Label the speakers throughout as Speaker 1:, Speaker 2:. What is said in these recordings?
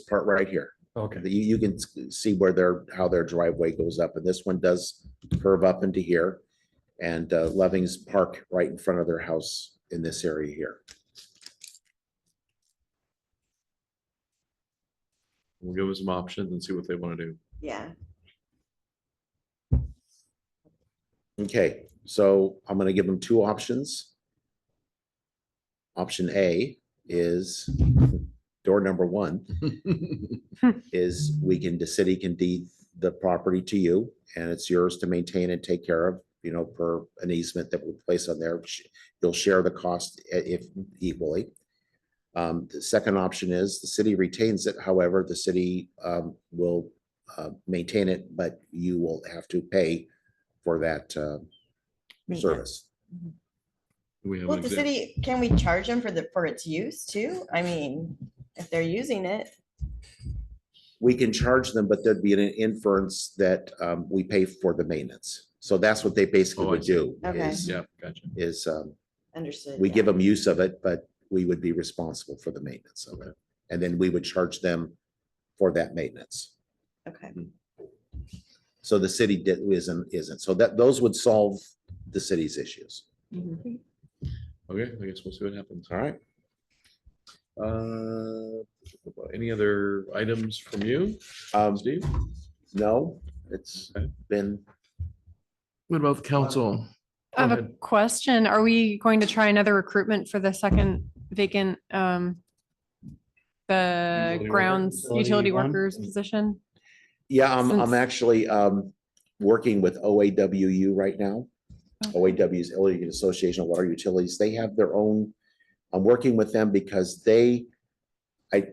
Speaker 1: part right here.
Speaker 2: Okay,
Speaker 1: You, you can s- see where their, how their driveway goes up, and this one does curve up into here. And uh, Loving's Park right in front of their house in this area here.
Speaker 3: We'll give them some options and see what they want to do.
Speaker 4: Yeah,
Speaker 1: Okay, so I'm gonna give them two options. Option A is, door number one, is we can, the city can deed the property to you, and it's yours to maintain and take care of, you know, per an easement that we place on there. Sh- You'll share the cost i- if equally. Um, the second option is the city retains it, however, the city, um, will, uh, maintain it, but you will have to pay for that uh,
Speaker 4: Mm-hmm.
Speaker 1: service.
Speaker 3: Do We have
Speaker 4: well,
Speaker 3: an
Speaker 4: the
Speaker 3: example.
Speaker 4: city, can we charge them for the, for its use too? I mean, if they're using it,
Speaker 1: We can charge them, but there'd be an inference that um, we pay for the maintenance. So that's what they basically
Speaker 3: Oh, I
Speaker 1: would
Speaker 3: see.
Speaker 1: do
Speaker 4: Okay.
Speaker 1: is,
Speaker 3: Yeah, gotcha.
Speaker 1: is um,
Speaker 4: understood.
Speaker 1: we
Speaker 4: yeah.
Speaker 1: give them use of it, but we would be responsible for the maintenance of it. And then we would charge them for that maintenance.
Speaker 4: Okay,
Speaker 1: So the city did, isn't, isn't. So that, those would solve the city's issues.
Speaker 3: Okay, I guess we'll see what happens.
Speaker 1: All right.
Speaker 3: Uh, Any other items from you,
Speaker 1: Um,
Speaker 3: Steve?
Speaker 1: No, it's
Speaker 3: Okay.
Speaker 1: been,
Speaker 3: What about council?
Speaker 5: I have
Speaker 3: Go
Speaker 5: a
Speaker 3: ahead.
Speaker 5: question. Are we going to try another recruitment for the second vacant, um, the
Speaker 3: Utility worker-
Speaker 5: grounds
Speaker 3: utility
Speaker 5: utility
Speaker 3: one? Mm.
Speaker 5: workers position?
Speaker 1: Yeah, I'm, I'm
Speaker 5: Since-
Speaker 1: actually um, working with OAWU right now.
Speaker 5: Okay.
Speaker 1: OAW is Oregon Association of Water Utilities. They have their own, I'm working with them because they, I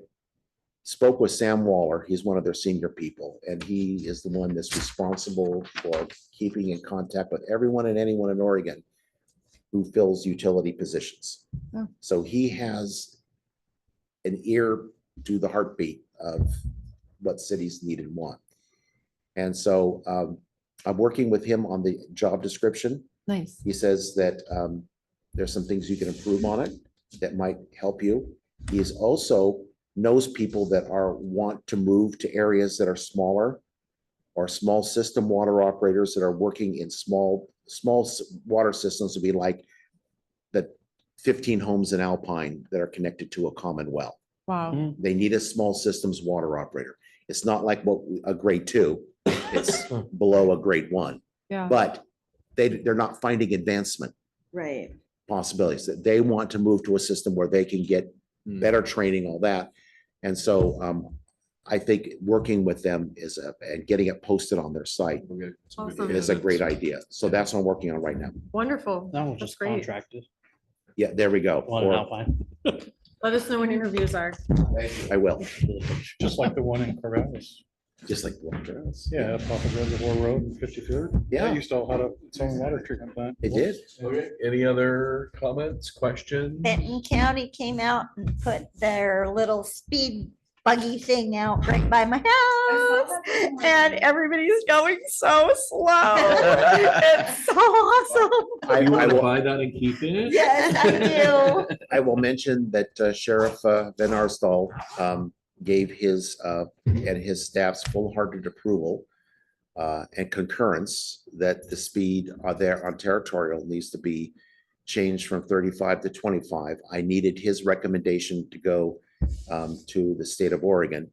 Speaker 1: spoke with Sam Waller. He's one of their senior people, and he is the one that's responsible for keeping in contact with everyone and anyone in Oregon who fills utility positions.
Speaker 5: Oh.
Speaker 1: So he has an ear to the heartbeat of what cities need and want. And so um, I'm working with him on the job description.
Speaker 5: Nice.
Speaker 1: He says that um, there's some things you can improve on it that might help you. He is also knows people that are want to move to areas that are smaller or small system water operators that are working in small, small s- water systems would be like the fifteen homes in Alpine that are connected to a common well.
Speaker 3: Mm.
Speaker 5: Wow.
Speaker 1: They need a small systems water operator. It's not like what a grade two, it's below a grade one.
Speaker 5: Yeah.
Speaker 1: But they, they're not finding advancement
Speaker 4: right.
Speaker 1: possibilities, that they want to move to a system where they can get
Speaker 3: Hmm.
Speaker 1: better training, all that. And so um, I think working with them is, a- and getting it posted on their site
Speaker 3: We'll get some good
Speaker 5: Awesome.
Speaker 1: is a great
Speaker 3: candidates.
Speaker 1: idea. So that's what I'm working on right now.
Speaker 5: Wonderful.
Speaker 6: That was
Speaker 5: That's
Speaker 6: just
Speaker 5: great.
Speaker 6: contracted.
Speaker 1: Yeah, there we go.
Speaker 6: One in
Speaker 1: Or-
Speaker 6: Alpine,
Speaker 5: Let us know when interviews are.
Speaker 1: I will,
Speaker 6: just like the one in Corvallis.
Speaker 1: just like. Walker.
Speaker 6: Yeah, up off of Reservoir Road and fifty-third.
Speaker 1: Yeah.
Speaker 6: That used to all had a- its own water treatment plant.
Speaker 1: It did.
Speaker 3: Okay, Any other comments, questions?
Speaker 7: Benton County came out and put their little speed buggy thing out right by my house. And everybody's going so slow. It's so awesome.
Speaker 1: I
Speaker 3: You
Speaker 1: I
Speaker 3: want to
Speaker 1: will,
Speaker 3: buy that and keep it?
Speaker 7: Yes, I do.
Speaker 1: I will mention that uh, Sheriff uh, Van Arsdal um, gave his uh, and his staff's full-hearted approval uh, and concurrence that the speed uh, there on territorial needs to be changed from thirty-five to twenty-five. I needed his recommendation to go um, to the state of Oregon.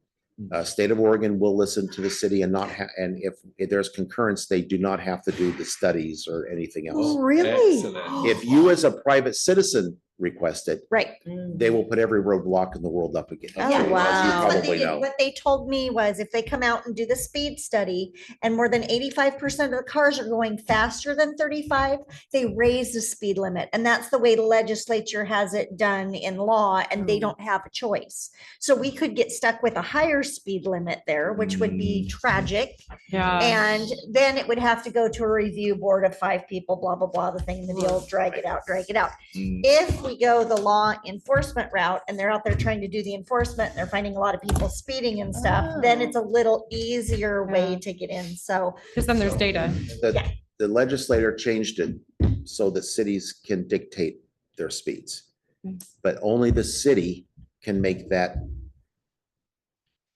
Speaker 1: Uh, State of Oregon will listen to the city and not, ha- and if if there's concurrence, they do not have to do the studies or anything else.
Speaker 3: Really?
Speaker 1: If you as a private citizen request it,
Speaker 7: Right.
Speaker 1: they will put every roadblock in the world up again.
Speaker 7: Yeah.
Speaker 1: as you
Speaker 4: wow.
Speaker 7: What
Speaker 1: Probably
Speaker 7: they, did-
Speaker 1: know.
Speaker 7: what they told me was if they come out and do the speed study and more than eighty-five percent of the cars are going faster than thirty-five, they raise the speed limit. And that's the way the legislature has it done in law and they
Speaker 5: Mm.
Speaker 7: don't have a choice. So we could get stuck with a higher speed limit there, which would be tragic.
Speaker 5: Yeah.
Speaker 7: And then it would have to go to a review board of five people, blah, blah, blah, the thing, the deal, drag it out, drag it out.
Speaker 3: Mm.
Speaker 7: If we go the law enforcement route and they're out there trying to do the enforcement, and they're finding a lot of people speeding and stuff, then it's a little easier way
Speaker 5: Ah. Yeah.
Speaker 7: to get in. So
Speaker 5: Because then there's data.
Speaker 1: The the legislator changed it so that cities can dictate their speeds,
Speaker 5: Nice.
Speaker 1: but only the city can make that